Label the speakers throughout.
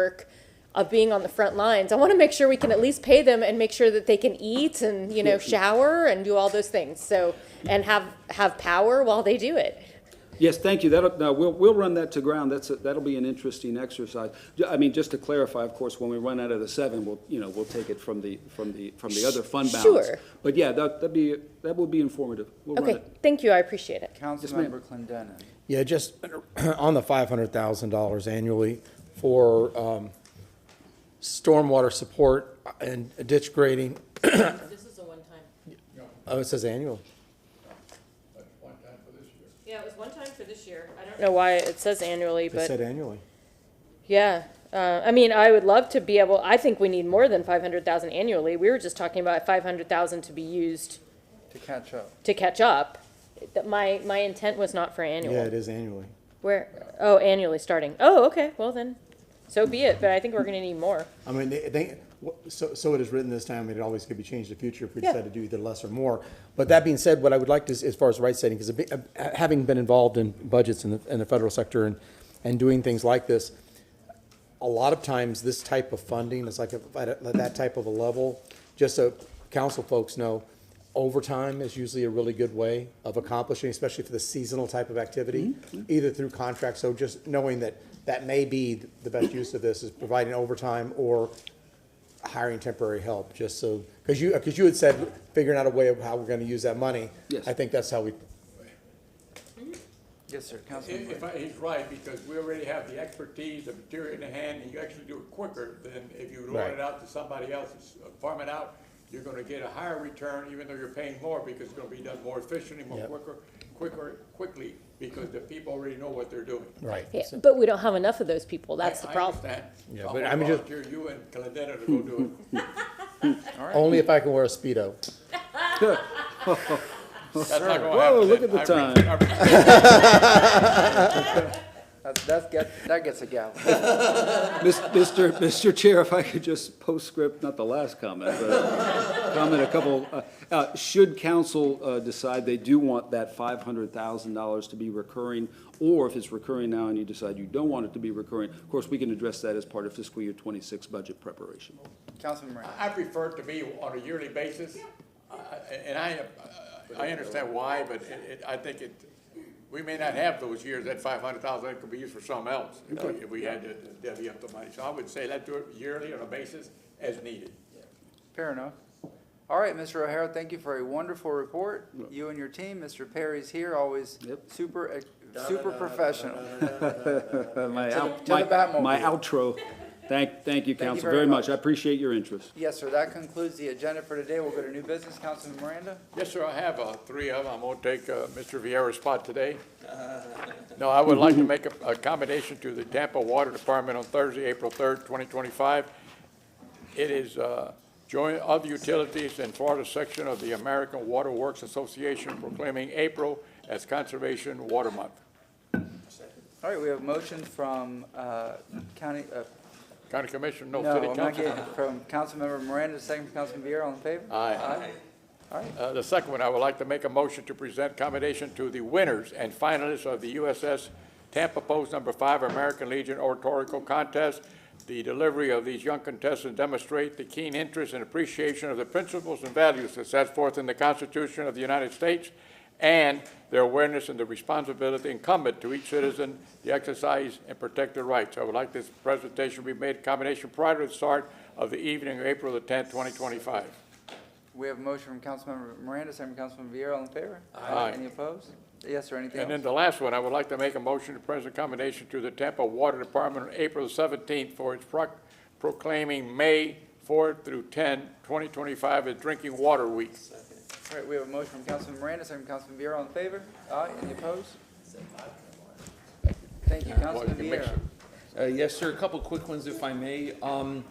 Speaker 1: work of being on the front lines. I want to make sure we can at least pay them and make sure that they can eat and, you know, shower and do all those things. So, and have, have power while they do it.
Speaker 2: Yes, thank you. That'll, now, we'll, we'll run that to ground. That's, a- that'll be an interesting exercise. Ju- I mean, just to clarify, of course, when we run out of the seven, we'll, you know, we'll take it from the, from the, from the other fund balance.
Speaker 1: Sure.
Speaker 2: But yeah, that, that'd be, that will be informative. We'll run
Speaker 1: Okay,
Speaker 2: it.
Speaker 1: thank you, I appreciate it.
Speaker 2: ma'am.
Speaker 3: Councilmember Clendenin.
Speaker 4: Yeah, just on the five hundred thousand dollars annually for um, stormwater support and ditch grading.
Speaker 5: This is a one-time.
Speaker 4: Oh, it says annual.
Speaker 5: Yeah, it was one time for this year. I
Speaker 1: I
Speaker 5: don't
Speaker 1: don't know why it says annually,
Speaker 4: It said
Speaker 1: but
Speaker 4: annually.
Speaker 1: yeah. Uh, I mean, I would love to be able, I think we need more than five hundred thousand annually. We were just talking about five hundred thousand to be used
Speaker 3: To catch up.
Speaker 1: to catch up. That My, my intent was not for
Speaker 4: Yeah, it
Speaker 1: annual.
Speaker 4: is annually.
Speaker 1: Where, oh, annually starting. Oh, okay, well then, so be it, but I think we're gonna need more.
Speaker 4: I mean, they, they, wh- so, so it is written this time, and it always could be changed in the future if we
Speaker 1: Yeah.
Speaker 4: decide to do either less or more. But that being said, what I would like to, s- as far as right setting, because having been involved in budgets in the, in the federal sector and, and doing things like this, a lot of times, this type of funding is like at at that type of a level, just so council folks know, overtime is usually a really good way of accomplishing, especially for the seasonal type of activity,
Speaker 6: Mm-hmm.
Speaker 4: either through contracts, so just knowing that that may be the best use of this is providing overtime or hiring temporary help, just so, because you, because you had said figuring out a way of how we're gonna use that money.
Speaker 2: Yes.
Speaker 4: I think that's how we,
Speaker 3: Yes, sir,
Speaker 7: If, if
Speaker 3: Councilmember.
Speaker 7: I, he's right, because we already have the expertise, the material in the hand, and you actually do it quicker than if you loan
Speaker 4: Right.
Speaker 7: it out to somebody else, It's- farm it out, you're gonna get a higher return, even though you're paying more, because it's gonna be done more efficiently, more
Speaker 4: Yep.
Speaker 7: quicker, quicker, quickly, because the people already know what they're doing.
Speaker 4: right.
Speaker 1: Yeah, but we don't have enough of those people. That's
Speaker 7: I-
Speaker 1: the
Speaker 7: I
Speaker 1: problem.
Speaker 7: understand.
Speaker 4: Yeah,
Speaker 7: So
Speaker 4: but
Speaker 7: I'm
Speaker 4: I'm
Speaker 7: gonna
Speaker 4: just-
Speaker 7: volunteer you and Calendino to go do it.
Speaker 4: Only if I can wear a Speedo.
Speaker 7: That's not gonna
Speaker 2: Whoa,
Speaker 7: happen.
Speaker 2: look at the
Speaker 7: I re- I re-
Speaker 3: That's, that's get, that gets a gavel.
Speaker 2: Mis- Mr. Mr. Chair, if I could just postscript, not the last comment, but comment a couple. uh, uh, Should council uh, decide they do want that $500,000 to be recurring, or if it's recurring now and you decide you don't want it to be recurring, of course, we can address that as part of fiscal year '26 budget preparation.
Speaker 3: Councilmember.
Speaker 7: I prefer it to be on a yearly basis, I- I- and I, uh, I understand why, but it, it, I think it, we may not have those years, that five hundred thousand, that could be used for something else, if we- if we had to divvy up the money. So I would say let's do it yearly on a basis as needed.
Speaker 3: Fair enough. All right, Mr. O'Hara, thank you for a wonderful report. You and your team, Mr. Perry's here, always
Speaker 2: Yep.
Speaker 3: super, ex- super professional.
Speaker 2: Uh, My out-
Speaker 3: to the
Speaker 2: my-
Speaker 3: Batmobile.
Speaker 2: My outro. Thank, thank you, council,
Speaker 3: very
Speaker 2: very
Speaker 3: much.
Speaker 2: much. I appreciate your interest.
Speaker 3: Yes, sir, that concludes the agenda for today. We'll go to new business. Councilman Miranda?
Speaker 7: Yes, sir, I have, uh, three of them. I'm gonna take, uh, Mr. Vieira's spot today. No, I would like to make a, a commendation to the Tampa Water Department on Thursday, April third, twenty twenty-five. It is, uh, joint of utilities and Florida section of the American Water Works Association proclaiming April as Conservation Water Month.
Speaker 3: All right, we have a motion from, uh, county, uh,
Speaker 7: County Commission, no
Speaker 3: no,
Speaker 7: city
Speaker 3: I'm not
Speaker 7: Oh, council.
Speaker 3: getting it, from Councilmember Miranda, second from Councilman Viera, all in favor?
Speaker 7: Aye.
Speaker 3: Aye. All right,
Speaker 7: Uh, The second one, I would like to make a motion to present commendation to the winners and finalists of the USS Tampa Post Number Five American Legion Oratorical Contest. The delivery of these young contestants demonstrate the keen interest and appreciation of the principles and values that set forth in the Constitution of the United States and their awareness and the responsibility incumbent to each citizen to exercise and protect their rights. I would like this presentation to be made commendation prior to the start of the evening of April the tenth, twenty twenty-five.
Speaker 3: we have a motion from Councilmember Miranda, second from Councilman Viera, all in favor?
Speaker 7: Aye.
Speaker 3: Any opposed? Yes, sir, anything else?
Speaker 7: And then the last one, I would like to make a motion to present commendation to the Tampa Water Department on April seventeenth for its proc- proclaiming May fourth through 10, 2025, as Drinking Water Week.
Speaker 3: All right, we have a motion from Councilman Miranda, second from Councilman Viera, all in favor? Aye, any opposed? Thank you,
Speaker 7: Well,
Speaker 3: Councilman
Speaker 7: you can mix
Speaker 3: Viera.
Speaker 7: it.
Speaker 6: Uh, Yes, sir. A couple quick ones, if I may. Um,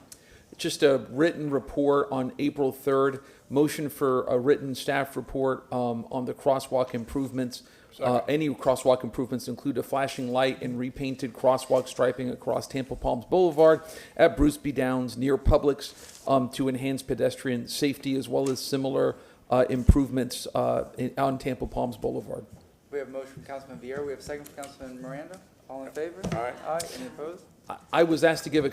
Speaker 6: Just a written report on April 3rd. Motion for a written staff report um, on the crosswalk improvements. Uh, Any crosswalk improvements include a flashing light and repainted crosswalk striping across Tampa Palms Boulevard at Bruce B. Downs near Publix um, to enhance pedestrian safety as well as similar uh, improvements uh, in- on Tampa Palms Boulevard.
Speaker 3: We have a motion from Councilman Viera, we have a second from Councilman Miranda, all in favor?
Speaker 7: Aye.
Speaker 3: Aye, any opposed?
Speaker 6: I- I was asked to give a